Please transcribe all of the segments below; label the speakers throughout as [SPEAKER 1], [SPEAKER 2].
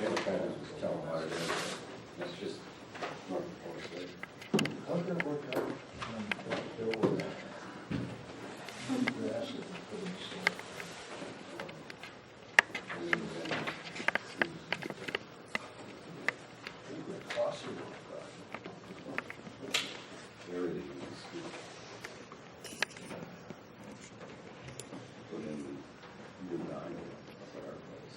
[SPEAKER 1] The other guy was just telling about it, that's just north of Florida State.
[SPEAKER 2] How's that work out? um, that bill with that? You're asking for this,
[SPEAKER 1] And then, uh,
[SPEAKER 2] uh, I think it costs you a lot, but
[SPEAKER 1] Everything is good. Put in the new line at our place.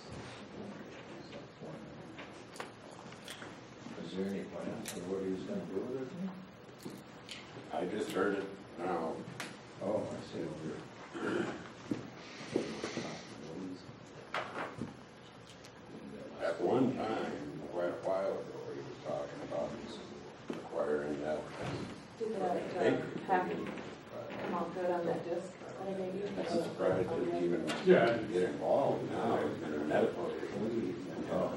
[SPEAKER 2] Is there any plan for what he's gonna do with it?
[SPEAKER 1] I just heard it now. Oh, I see over here. At one time, quite a while ago, he was talking about acquiring that. uh,
[SPEAKER 3] Did that uh,
[SPEAKER 1] acre.
[SPEAKER 3] pack come out good on that disc? that I gave you?
[SPEAKER 1] I'm surprised that he even
[SPEAKER 4] Yeah.
[SPEAKER 1] get involved now, it's been a medical issue.
[SPEAKER 2] Oh.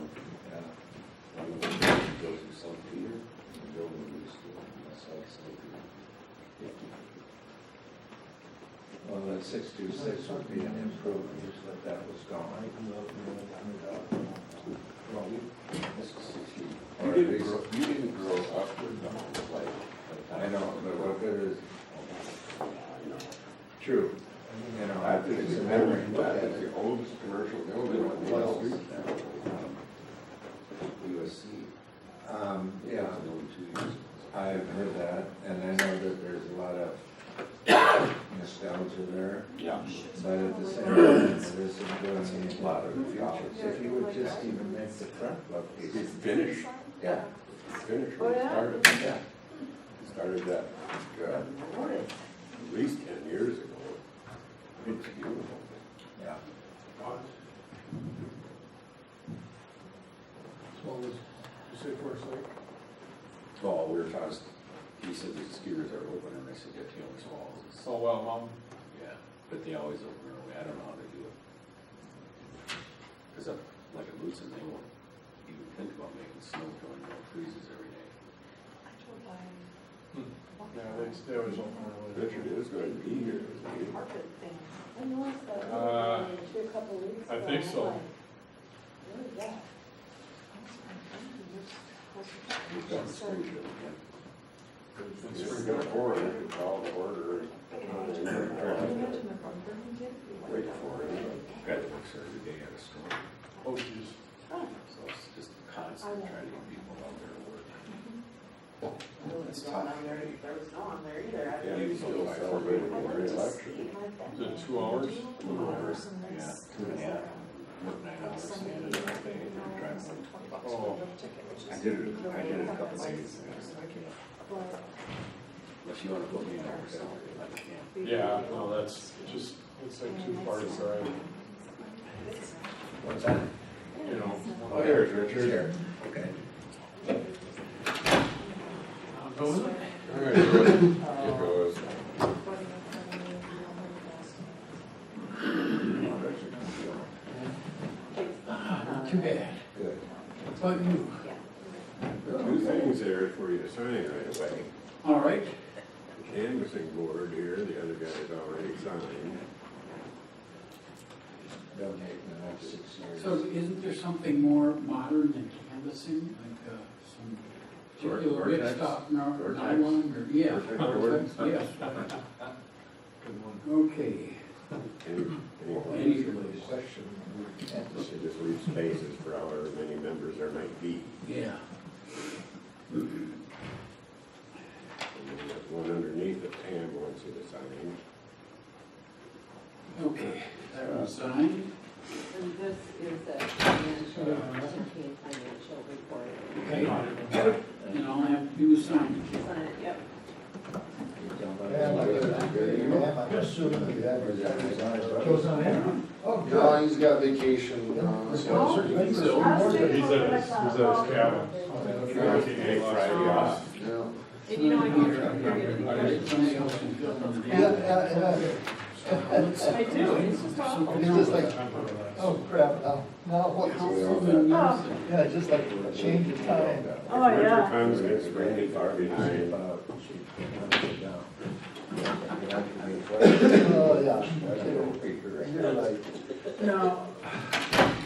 [SPEAKER 1] One of them goes to St. Peter, and build a new school, and that's how it's like.
[SPEAKER 2] Well, that six-two-six would be an improvement, but that was gone.
[SPEAKER 1] Well, you, this is sixteen. You didn't grow, you didn't grow up with them, like.
[SPEAKER 2] I know, but what good is,
[SPEAKER 1] I know.
[SPEAKER 2] true, you know,
[SPEAKER 1] I think
[SPEAKER 2] it's a memory,
[SPEAKER 1] memory,
[SPEAKER 2] but
[SPEAKER 1] that's the oldest commercial building on Wall Street now. USC.
[SPEAKER 2] um, yeah,
[SPEAKER 1] It's only two years.
[SPEAKER 2] I've heard that, and I know that there's a lot of nostalgia there.
[SPEAKER 1] Yeah.
[SPEAKER 2] But at the same time, there isn't going to be a lot of future. If you would just even make the front look
[SPEAKER 1] It's
[SPEAKER 2] decent.
[SPEAKER 1] finished.
[SPEAKER 2] Yeah,
[SPEAKER 1] finished
[SPEAKER 3] Oh,
[SPEAKER 1] when it
[SPEAKER 3] yeah?
[SPEAKER 1] started.
[SPEAKER 2] yeah.
[SPEAKER 1] Started that, like, uh, at least ten years ago. It's beautiful.
[SPEAKER 2] Yeah.
[SPEAKER 4] Well, was, you say Forest Lake?
[SPEAKER 1] Well, we were talking, he said the skiers are open and I said, yeah, Taylor's Falls. is-
[SPEAKER 4] Oh, well, mom.
[SPEAKER 1] Yeah, but they always open early. I don't know how they do it. Cause up like at Lucin, they won't even think about making snow going, it freezes every day.
[SPEAKER 4] Yeah, they, they always open early.
[SPEAKER 1] is gonna be here. isn't
[SPEAKER 3] Carpet thing. I noticed that
[SPEAKER 4] Uh,
[SPEAKER 3] you did a couple weeks
[SPEAKER 4] I
[SPEAKER 3] ago,
[SPEAKER 4] think
[SPEAKER 3] I'm
[SPEAKER 4] so.
[SPEAKER 3] like, What is that?
[SPEAKER 1] he? We've got the spring show again.
[SPEAKER 4] It's
[SPEAKER 1] This is
[SPEAKER 4] pretty good.
[SPEAKER 1] gonna pour in, we call the order. and- Wait for it. Guy that works every day at a store.
[SPEAKER 4] Oh, geez.
[SPEAKER 1] So it's just constant trying to get people out there to work.
[SPEAKER 3] It's not on there, there was no on there either. I-
[SPEAKER 1] Yeah, you still celebrating
[SPEAKER 3] I
[SPEAKER 1] the
[SPEAKER 3] went to see,
[SPEAKER 1] reelection.
[SPEAKER 3] like, that.
[SPEAKER 4] Is it two hours?
[SPEAKER 3] Two hours and then
[SPEAKER 1] Yeah,
[SPEAKER 3] s-
[SPEAKER 1] two and a half. Work nine hours,
[SPEAKER 3] Sunday,
[SPEAKER 1] and then I think I'm
[SPEAKER 3] you know,
[SPEAKER 1] driving.
[SPEAKER 3] some twenty bucks
[SPEAKER 4] Oh.
[SPEAKER 3] for the ticket, which
[SPEAKER 1] I
[SPEAKER 3] is-
[SPEAKER 1] did it, I did it a couple days.
[SPEAKER 3] But
[SPEAKER 1] Unless you wanna put me in there, so I can't.
[SPEAKER 4] Yeah, no, that's just, it's like two parts, all right?
[SPEAKER 2] What's that?
[SPEAKER 4] You know,
[SPEAKER 2] Oh, here's Richard. Here, okay.
[SPEAKER 1] It goes.
[SPEAKER 5] Too bad.
[SPEAKER 2] Good.
[SPEAKER 5] What about you?
[SPEAKER 1] Two things there for you to sign right away.
[SPEAKER 5] All right.
[SPEAKER 1] The Canvassing board here, the other guy's already signed.
[SPEAKER 2] Donate in the next six years.
[SPEAKER 5] So isn't there something more modern than canvassing, like uh, some particular
[SPEAKER 1] Vertex?
[SPEAKER 5] rip stop, no-
[SPEAKER 1] Vertex?
[SPEAKER 5] nylon, or, yeah.
[SPEAKER 1] Vertex board?
[SPEAKER 5] vertex, Yes. Okay.
[SPEAKER 1] Any, any,
[SPEAKER 5] Any
[SPEAKER 2] The
[SPEAKER 5] release?
[SPEAKER 2] Question, we can't
[SPEAKER 1] it
[SPEAKER 2] decide.
[SPEAKER 1] just leaves spaces for however many members there might be.
[SPEAKER 5] Yeah.
[SPEAKER 1] And then there's one underneath that Pam wants you to sign.
[SPEAKER 5] Okay. That one's signed.
[SPEAKER 6] And this is the financial, seventeen financial report.
[SPEAKER 5] Okay. And all I have to do is sign it.
[SPEAKER 6] Sign it, yep.
[SPEAKER 2] Yeah, like, uh, I'm assuming you have. Goes on
[SPEAKER 5] Uh-huh.
[SPEAKER 2] in? Oh, God.
[SPEAKER 7] No, he's got vacation, uh, so
[SPEAKER 2] That's so-
[SPEAKER 4] He's at his, he's at his cabin. Fourteen day
[SPEAKER 1] Friday
[SPEAKER 4] last
[SPEAKER 1] off.
[SPEAKER 7] yeah.
[SPEAKER 6] And you know, I go through.
[SPEAKER 5] Let Somebody else can fill in the
[SPEAKER 2] Yeah, yeah,
[SPEAKER 5] blank.
[SPEAKER 2] yeah.
[SPEAKER 6] I do, it's just awful.
[SPEAKER 5] Something
[SPEAKER 7] It's just
[SPEAKER 5] else.
[SPEAKER 7] like, oh crap, now, now what?
[SPEAKER 5] Councilman Nelson.
[SPEAKER 7] Yeah, just like change the time.
[SPEAKER 6] Oh, yeah.
[SPEAKER 1] Winter comes, gets rainy, far behind.
[SPEAKER 7] Oh, yeah. Oh,
[SPEAKER 2] I don't know, Peter,
[SPEAKER 7] You're like,
[SPEAKER 5] Now,